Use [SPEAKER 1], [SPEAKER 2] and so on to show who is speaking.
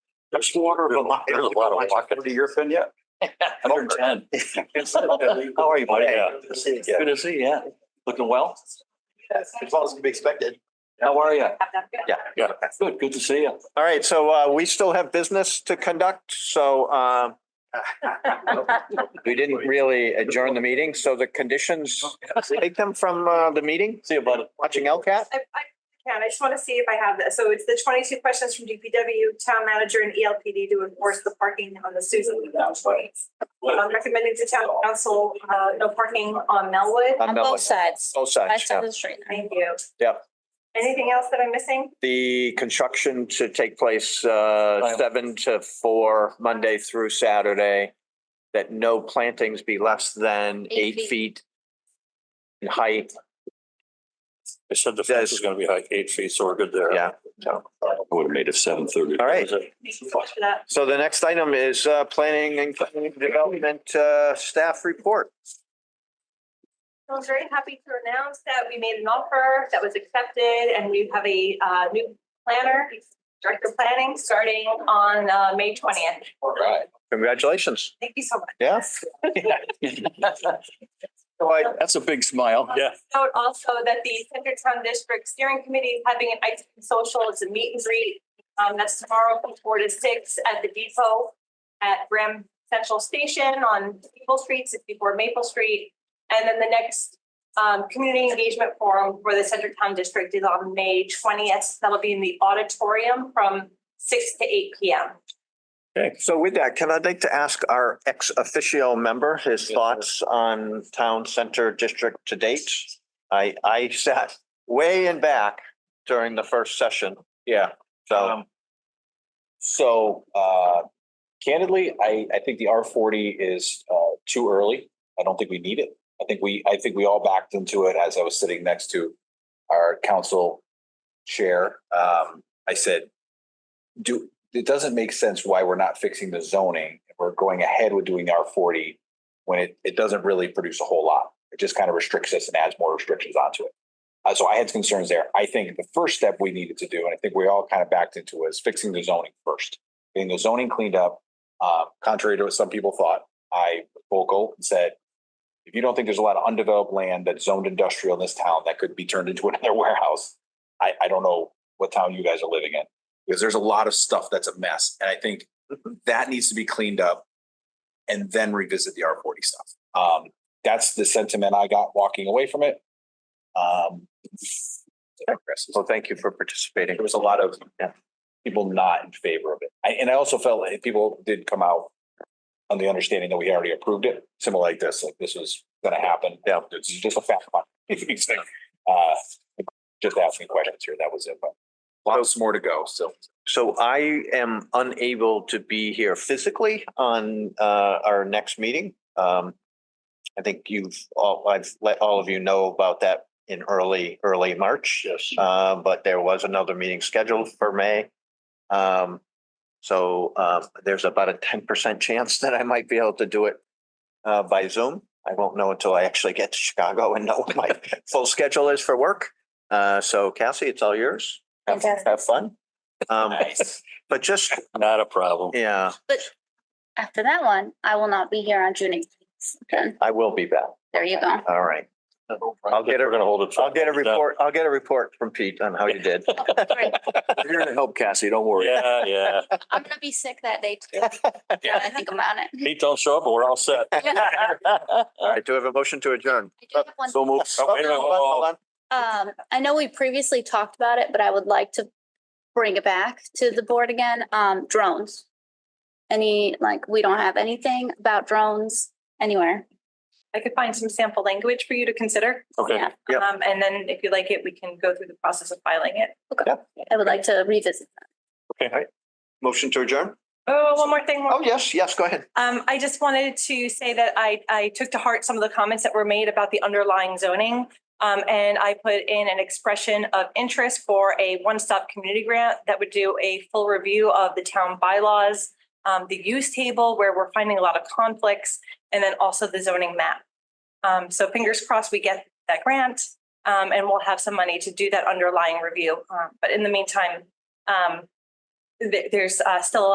[SPEAKER 1] There's water.
[SPEAKER 2] There's a lot- there's a lot of walking.
[SPEAKER 1] To your fin yet?
[SPEAKER 3] Hundred ten.
[SPEAKER 1] How are you, buddy?
[SPEAKER 2] Oh, Yeah.
[SPEAKER 1] Good to see you
[SPEAKER 3] Good
[SPEAKER 1] again.
[SPEAKER 3] to see you. Yeah. Looking well?
[SPEAKER 1] As well as can be expected.
[SPEAKER 3] How are you?
[SPEAKER 1] Yeah.
[SPEAKER 2] Yeah.
[SPEAKER 3] Good, good to see you.
[SPEAKER 2] All right, so uh, we still have business to conduct, so um, we didn't really adjourn the meeting, so the conditions, take them from uh, the meeting,
[SPEAKER 3] See you, buddy.
[SPEAKER 2] watching LCAT.
[SPEAKER 4] I, I can, I just want to see if I have this. So it's the twenty-two questions from DPW, town manager and E ELPD to enforce the parking on the Susan Lee Beltway. I'm Um, recommending to town council, uh, no parking on Melwood.
[SPEAKER 2] On
[SPEAKER 5] On
[SPEAKER 2] Melwood.
[SPEAKER 5] both sides,
[SPEAKER 2] Both sides,
[SPEAKER 5] west side
[SPEAKER 2] yeah.
[SPEAKER 5] of the street.
[SPEAKER 4] Thank you.
[SPEAKER 2] Yep.
[SPEAKER 4] Anything else that I'm missing?
[SPEAKER 2] The construction to take place uh, seven to four, Monday through Saturday. That no plantings be less than
[SPEAKER 5] Eight
[SPEAKER 2] eight feet in height,
[SPEAKER 6] They said the fence is gonna be like eight feet, so we're good there.
[SPEAKER 2] yeah.
[SPEAKER 1] Would have made it seven thirty.
[SPEAKER 2] All right,
[SPEAKER 4] Thank you so much for that.
[SPEAKER 2] so the next item is uh, planning and community development uh, staff report.
[SPEAKER 4] I was very happy to announce that we made an offer that was accepted and we have a, uh, new planner, director of planning, starting on, uh, May twentieth.
[SPEAKER 2] All right. Congratulations.
[SPEAKER 4] Thank you so much.
[SPEAKER 2] Yeah.
[SPEAKER 3] That's a big smile.
[SPEAKER 6] Yeah.
[SPEAKER 4] Note also that the Center Town District Steering Committee is having an ice cream social, it's a meet and greet. Um, that's tomorrow from four to six at the depot at Graham Central Station on Maple Street, sixty-four Maple Street. And then the next, um, community engagement forum for the Center Town District is on May twentieth. That'll be in the auditorium from six to eight P M.
[SPEAKER 2] So with that, can I like to ask our ex officio member his thoughts on town center district to date? I, I sat way in back during the first session. Yeah. So,
[SPEAKER 7] So uh, candidly, I, I think the R forty is uh, too early. I don't think we need it. I think we, I think we all backed into it as I was sitting next to our council chair. Um, I said, do, it doesn't make sense why we're not fixing the zoning. We're going ahead with doing R forty when it, it doesn't really produce a whole lot. It just kind of restricts us and adds more restrictions onto it. Uh, so I had concerns there. I think the first step we needed to do, and I think we all kind of backed into, was fixing the zoning first. Getting the zoning cleaned up, uh, contrary to what some people thought, I was vocal and said, if you don't think there's a lot of undeveloped land that's zoned industrial in this town that could be turned into another warehouse, I, I don't know what town you guys are living in. Because there's a lot of stuff that's a mess, and I think that needs to be cleaned up and then revisit the R forty stuff. Um, that's the sentiment I got walking away from it. Um,
[SPEAKER 2] well, thank you for participating.
[SPEAKER 7] there was a lot of
[SPEAKER 2] Yeah.
[SPEAKER 7] people not in favor of it. I, and I also felt like people did come out on the understanding that we already approved it, similar like this, like this was gonna happen.
[SPEAKER 2] Yeah.
[SPEAKER 7] It's just a fact. It's like, uh, Just asking questions here, that was it, but lots more to go, so.
[SPEAKER 2] So I am unable to be here physically on uh our next meeting. Um. I think you've all, I've let all of you know about that in early, early March. Yes. Uh, but there was another meeting scheduled for May. Um, so uh, there's about a ten percent chance that I might be able to do it uh by Zoom. I won't know until I actually get to Chicago and know what my full schedule is for work. Uh, so Cassie, it's all yours. Have
[SPEAKER 5] Fantastic.
[SPEAKER 2] have fun. Um, but just,
[SPEAKER 6] Not a problem.
[SPEAKER 2] yeah,
[SPEAKER 5] After that one, I will not be here on June eighteenth. Then,
[SPEAKER 2] I will be back.
[SPEAKER 5] there you go.
[SPEAKER 2] All right. I'll get,
[SPEAKER 6] We're
[SPEAKER 2] a
[SPEAKER 6] gonna hold it.
[SPEAKER 2] will get a report. I'll get a report from Pete on how you did.
[SPEAKER 5] Great.
[SPEAKER 3] You're here to help Cassie, don't worry.
[SPEAKER 6] Yeah, yeah.
[SPEAKER 5] I'm gonna be sick that day too. Now that I think about it.
[SPEAKER 6] Pete don't show up, but we're all set.
[SPEAKER 2] All right, do I have a motion to adjourn?
[SPEAKER 5] I do have one
[SPEAKER 6] So move.
[SPEAKER 2] Oh, wait a minute, hold on, hold on.
[SPEAKER 5] Um, I know we previously talked about it, but I would like to bring it back to the board again, um, drones. Any, like, we don't have anything about drones anywhere.
[SPEAKER 4] I could find some sample language for you to consider.
[SPEAKER 6] Okay,
[SPEAKER 5] Yeah,
[SPEAKER 2] Yep.
[SPEAKER 4] Um, and then if you like it, we can go through the process of filing it.
[SPEAKER 5] I would like to revisit.
[SPEAKER 2] Motion to adjourn?
[SPEAKER 4] Oh, one more thing.
[SPEAKER 2] Oh, yes, yes, go ahead.
[SPEAKER 4] Um, I just wanted to say that I, I took to heart some of the comments that were made about the underlying zoning. Um, and I put in an expression of interest for a one-stop community grant that would do a full review of the town bylaws, um, the use table where we're finding a lot of conflicts, and then also the zoning map. Um, so fingers crossed we get that grant, um, and we'll have some money to do that underlying review. Um, but in the meantime, um, there- there's, uh, still a